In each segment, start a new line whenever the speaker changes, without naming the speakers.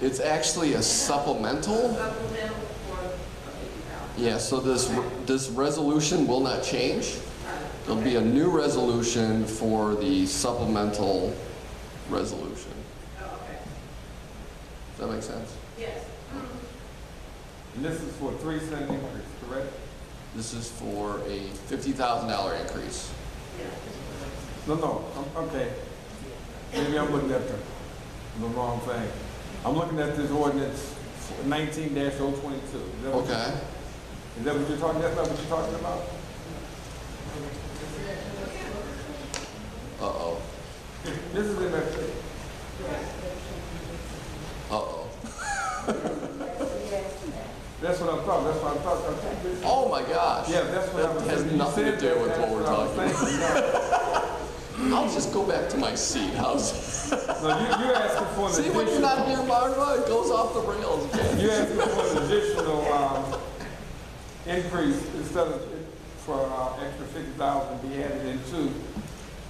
It's actually a supplemental.
Supplemental for a fifty thousand.
Yeah, so this, this resolution will not change. There'll be a new resolution for the supplemental resolution.
Oh, okay,
Does that make sense?
yes.
And this is for three cent increase, correct?
This is for a $50,000 increase.
No, no, I'm, okay. Maybe I'm looking at the, the wrong thing. I'm looking at this ordinance nineteen 22 Is that what-
Okay.
Is that what you're talking, that's not what you're talking about?
Uh-oh.
This is in the,
Uh-oh.
that's what I thought, that's what I thought, I think this-
Oh, my gosh.
yeah, that's what I was.
That has
thinking. You
nothing to
said
do
that,
with what
that's
we're
I was
talking about.
thinking. No.
I'll just go back to my seat. How's,
No, you, you're asking for an
see,
additional.
when you're not near Marva, it goes off the rails again.
You're asking for an additional, um, increase instead of, for, uh, extra fifty thousand to be added into.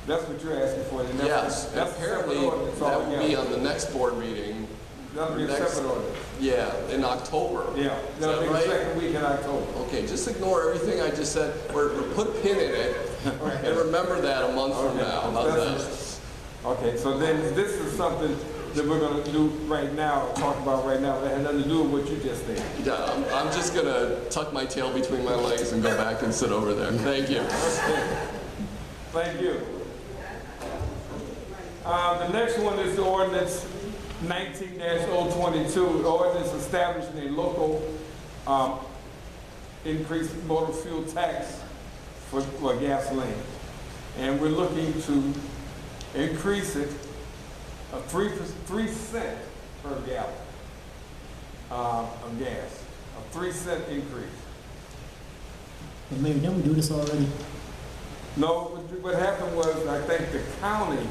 That's what you're asking for. and that's-
Yes,
that's a
apparently,
separate ordinance
that will be
altogether.
on the next board meeting,
That'll be a
next-
separate ordinance.
yeah, in October.
Yeah,
Is
that'll
that
be the
right?
second week in October.
Okay, just ignore everything I just said, or or put a pin in it, and remember that a month from
Okay.
now. How's that?
That's- Okay, so then this is something that we're gonna do right now, talk about right now, that has nothing to do with what you just said.
Yeah, I'm, I'm just gonna tuck my tail between my legs and go back and sit over there. Thank you.
Thank you. Um, the next one is the ordinance nineteen 22 the ordinance establishing a local, um, increased motor fuel tax for, for gasoline. And we're looking to increase it of three, per- three cent per gallon, um, of gas, a three cent increase.
But Mayor, didn't we do this already?
No, what you- what happened was, I think the county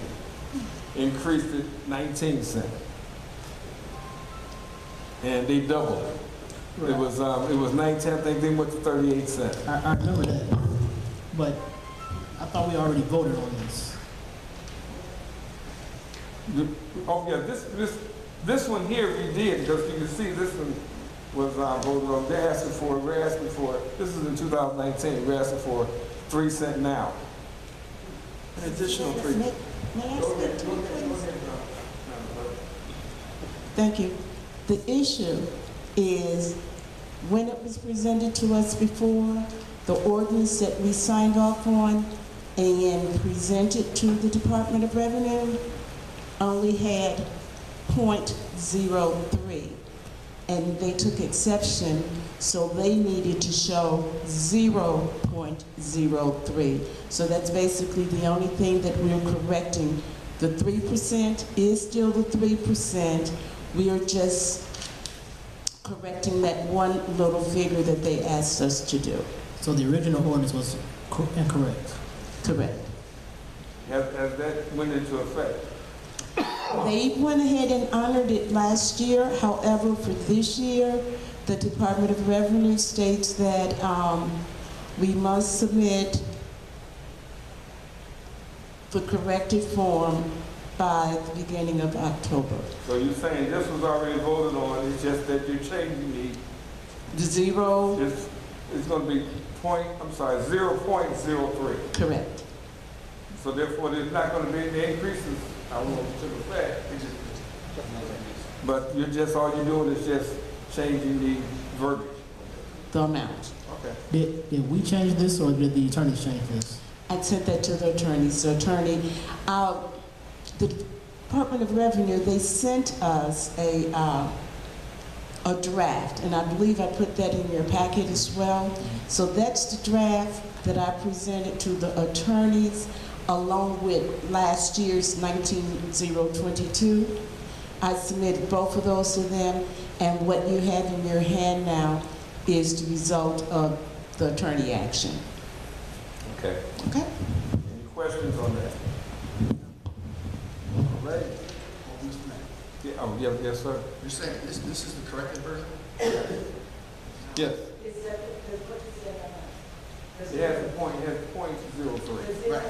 increased it 19 cent. And they doubled it. It was, um, it was 19, I think they went to 38 cent.
I, I remember that, but I thought we already voted on this.
You- Oh, yeah, this, this, this one here we did, because you can see this one was uh, voted on, they're asking for, we're asking for, this is in 2019, we're asking for 3 cent now. An additional 3.
May may I speak to it, please?
uh,
Thank you. The issue is, when it was presented to us before, the ordinance that we signed off on and presented to the Department of Revenue only had .03, and they took exception, so they needed to show 0.03. So that's basically the only thing that we're correcting. The 3% is still the 3%. We are just correcting that one little figure that they asked us to do.
So the original ordinance was cor- incorrect.
Correct.
Has, has that went into effect?
They went ahead and honored it last year. However, for this year, the Department of Revenue states that um, we must submit the corrected form by the beginning of October.
So you're saying this was already voted on, it's just that you're changing
The Zero,
the, it's, it's gonna be point, I'm sorry, zero point zero three.
correct.
So therefore, there's not gonna be any increases, I won't to the fact. But you're just, all you're doing is just changing the verbiage.
The amount.
Okay.
Did, did we change this or did the attorneys change this?
I sent that to the attorney, so attorney, uh, the Department of Revenue, they sent us a, uh, a draft, and I believe I put that in your packet as well. So that's the draft that I presented to the attorneys along with last year's 19022. I submitted both of those to them, and what you have in your hand now is the result of the attorney action.
Okay.
Okay?
Any questions on that? All right. Yeah, oh, yes, yes, sir.
You're saying this, this is the corrected version?
Yes. It has a point, it has point zero three.